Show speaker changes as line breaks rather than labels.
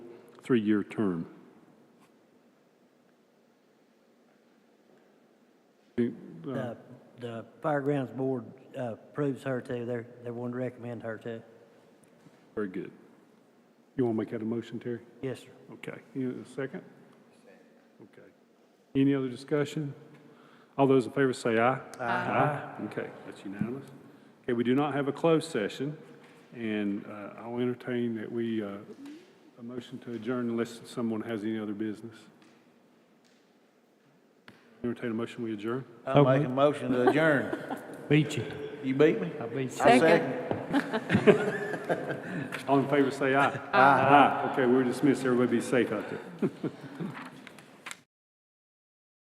three-year term.
The, the Firegrounds Board uh, approves her too. They're, they want to recommend her too.
Very good. You want to make that a motion, Terry?
Yes, sir.
Okay, you, a second? Okay. Any other discussion? All those in favor say aye. Aye. Okay, that's unanimous. Okay, we do not have a closed session, and uh, I'll entertain that we, uh, a motion to adjourn unless someone has any other business. Entertain a motion, we adjourn?
I'm making a motion to adjourn.
Beat you.
You beat me?
I beat you.
I
Second.
All in favor say aye. Aye. Okay, we're dismissed. Everybody be safe out there.